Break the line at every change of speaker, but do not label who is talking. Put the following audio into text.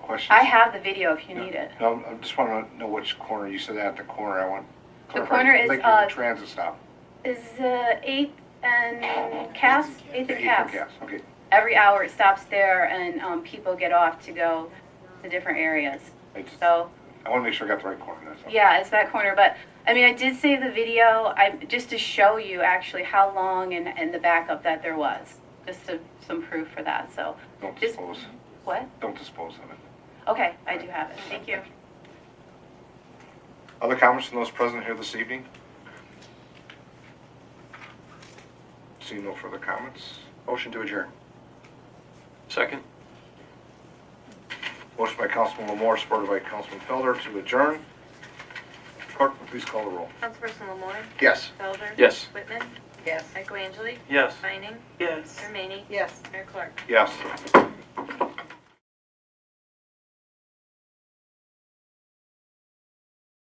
questions.
I have the video if you need it.
No, I just want to know which corner. You said at the corner. I want.
The
clarification.
corner is,
Like
uh,
your transit stop.
Is uh, Eighth and Cass, Eighth
The
and
eighth
Cass.
and Cass, okay.
Every hour it stops there and um, people get off to go to different areas.
I just, I
So,
want to make sure I got the right corner, that's all.
yeah, it's that corner. But I mean, I did save the video I, just to show you actually how long and, and the backup that there was, just to, some proof for that. So,
Don't
just-
dispose,
what?
don't dispose of it.
Okay, I do have it. Thank you.
Other comments from those present here this evening? See no further comments. Motion to adjourn.
Second?
Motion by Councilman Lamore, supported by Councilman Felder to adjourn. Clerk, please call the roll.
Councilperson Lamore?
Yes.
Felder?
Yes.
Whitman?
Yes.
Michaelangeli?
Yes.
Vining?
Yes.
Jermaine?
Yes.
Mayor Clark?
Yes.